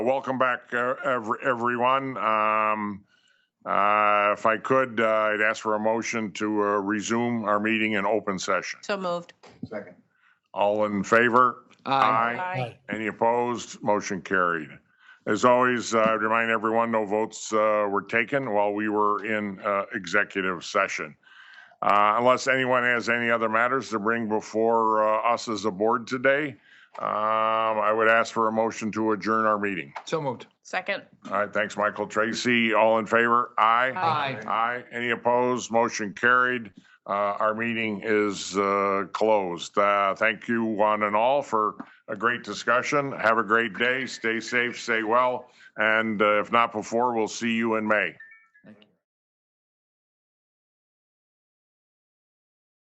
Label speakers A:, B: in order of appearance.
A: Welcome back, uh, ev- everyone. Um, uh, If I could, uh, I'd ask for a motion to uh, resume our meeting in open session.
B: So moved.
C: Second.
A: All in favor?
B: Aye.
A: Any opposed? Motion carried. As always, I remind everyone, no votes uh, were taken while we were in uh, executive session. Uh, Unless anyone has any other matters to bring before uh, us as a board today, um, I would ask for a motion to adjourn our meeting.
C: So moved.
B: Second.
A: All right, thanks, Michael Tracy. All in favor? Aye.
C: Aye.
A: Aye. Any opposed? Motion carried. Uh, Our meeting is uh, closed. Uh, Thank you one and all for a great discussion. Have a great day. Stay safe, stay well. And uh, if not before, we'll see you in May.